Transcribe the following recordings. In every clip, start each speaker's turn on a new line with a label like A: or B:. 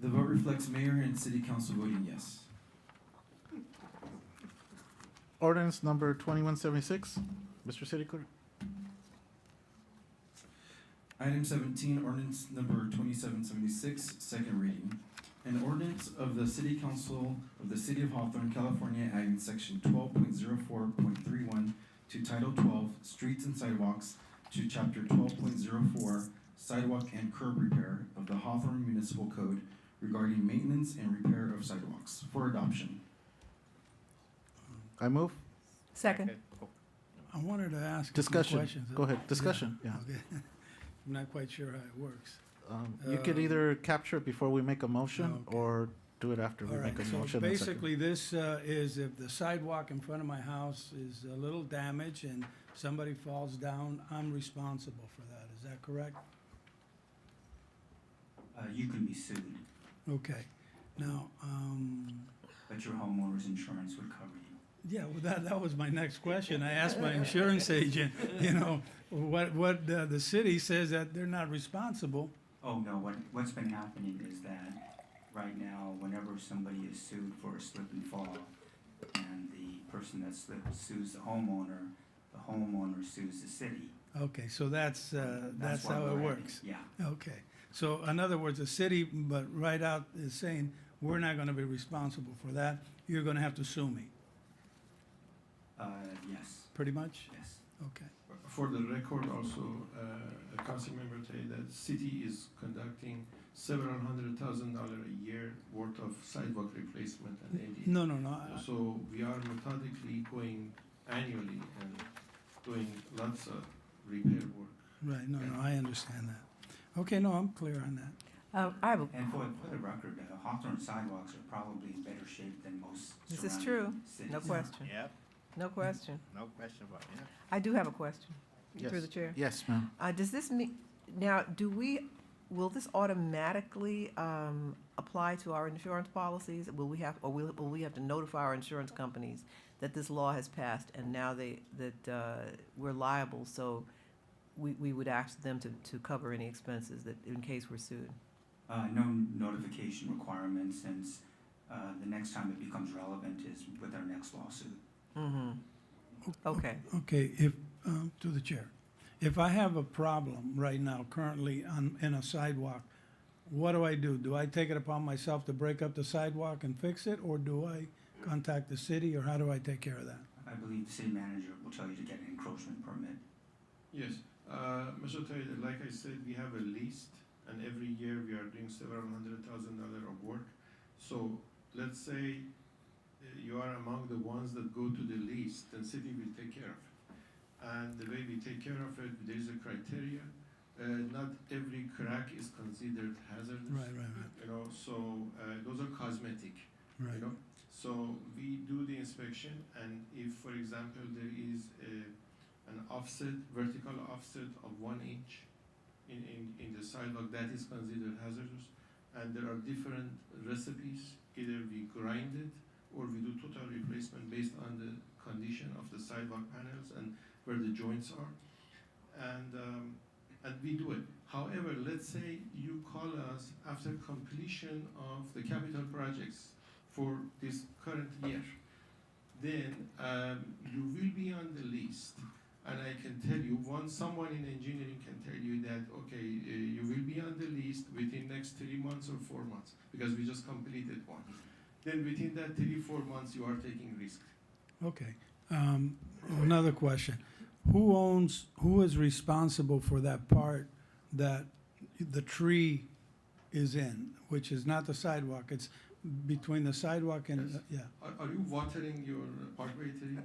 A: The vote reflects mayor and city council voting yes.
B: Ordinance number 2176. Mr. City Clerk.
A: Item seventeen, ordinance number twenty-seven seventy-six, second reading. An ordinance of the City Council of the City of Hawthorne, California, adding section twelve point zero four point three one to Title twelve, Streets and Sidewalks, to Chapter twelve point zero four, Sidewalk and Curb Repair of the Hawthorne Municipal Code regarding maintenance and repair of sidewalks for adoption.
B: I move.
C: Second.
D: I wanted to ask. a few
B: Discussion.
D: questions.
B: Go ahead. Discussion. Yeah.
D: Okay. I'm not quite sure how it works.
B: Um, You could
D: Um,
B: either capture it before we make a motion
D: okay.
B: or do it after we
D: All right,
B: make a
D: so
B: motion. and second.
D: basically, this uh, is if the sidewalk in front of my house is a little damaged and somebody falls down, I'm responsible for that. Is that correct?
E: Uh, you can be sued,
D: Okay. Now, um,
E: but your homeowner's insurance would cover you.
D: yeah, well, that, that was my next question. I asked my insurance agent, you know, what, what uh, the city says that they're not responsible.
E: Oh, no, what, what's been happening is that right now, whenever somebody is sued for a slip and fall, and the person that slipped sues the homeowner, the homeowner sues the city.
D: Okay, so that's, uh, that's
E: why
D: how it
E: we're at
D: works.
E: Yeah,
D: Okay, so in other words, the city, but right out is saying, we're not gonna be responsible for that, you're gonna have to sue me,
E: uh, yes,
D: pretty much?
E: yes.
D: Okay,
F: For the record also, uh, a council member today that city is conducting several hundred thousand dollar a year worth of sidewalk replacement and AD.
D: no, no, no, I-
F: So we are methodically going annually and doing lots of repair work.
D: right, no, no, I understand that. Okay, no, I'm clear on that.
C: Uh, I have, a-
E: And for, for the record, uh, Hawthorne sidewalks are probably in better shape than most
C: This is
E: surrounding
C: true.
E: cities.
C: no question,
G: Yeah,
C: no question.
G: no question about it.
C: I do have a question, through
B: Yes.
C: the chair.
B: Yes, ma'am.
C: Uh, does this mean, now, do we, will this automatically, um, apply to our insurance policies? Will we have, or will, will we have to notify our insurance companies that this law has passed and now they, that, uh, we're liable, so we, we would ask them to, to cover any expenses that, in case we're sued?
E: Uh, no notification requirement since, uh, the next time it becomes relevant is with our next lawsuit.
C: Mm-hmm. Okay,
D: Okay, if, um, to the chair, if I have a problem right now currently on, in a sidewalk, what do I do? Do I take it upon myself to break up the sidewalk and fix it, or do I contact the city, or how do I take care of that?
E: I believe the city manager will tell you to get an encroachment permit.
F: Yes, uh, Mr. Taylor, like I said, we have a list, and every year we are doing several hundred thousand dollar of work. So let's say uh, you are among the ones that go to the list, then city will take care of it. And the way we take care of it, there's a criteria. Uh, not every crack is considered hazardous.
D: Right, right,
F: You know, so uh, those are cosmetic.
D: right, right,
F: You know, so we do the inspection, and if, for example, there is a, an offset, vertical offset of one inch in, in, in the sidewalk, that is considered hazardous. And there are different recipes, either we grind it or we do total replacement based on the condition of the sidewalk panels and where the joints are. And, um, and we do it. However, let's say you call us after completion of the capital projects for this current year, then um, you will be on the list. And I can tell you, once someone in engineering can tell you that, okay, uh, you will be on the list within next three months or four months, because we just completed one. Then within that three, four months, you are taking risk.
D: okay. Um, another question, who owns, who is responsible for that part that the tree is in, which is not the sidewalk, it's between the sidewalk and, yeah.
F: Yes. Are, are you watering your parkway tree?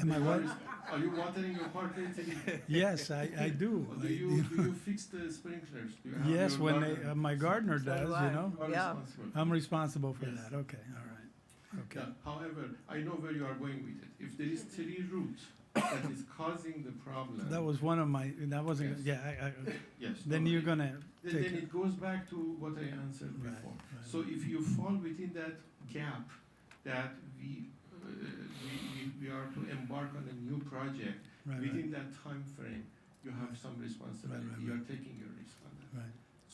D: Am I right?
F: Are you watering your parkway tree?
D: Yes, I, I do.
F: Or
D: I
F: do you, do you fix the sprinklers? Do you have
D: Yes,
F: your
D: when they,
F: garden?
D: uh, my gardener
C: So do
D: does,
C: I.
D: you know,
F: You are
C: Yeah.
F: responsible.
D: I'm responsible for
F: Yes.
D: that, okay, all right,
F: Yeah,
D: okay.
F: however, I know where you are going with it. If there is three roots that is causing the problem.
D: That was one of my, that wasn't,
F: Yes.
D: yeah, I, I,
F: Yes.
D: then
F: no,
D: you're
F: it-
D: gonna take
F: Then, then
D: it.
F: it goes back to what I answered
D: Right,
F: before.
D: right.
F: So if you fall within that gap that we, uh, we, we, we are to embark on a new project,
D: Right, right.
F: within that time frame, you have some responsibility.
D: right,
F: You are taking your risk on that.
D: Right.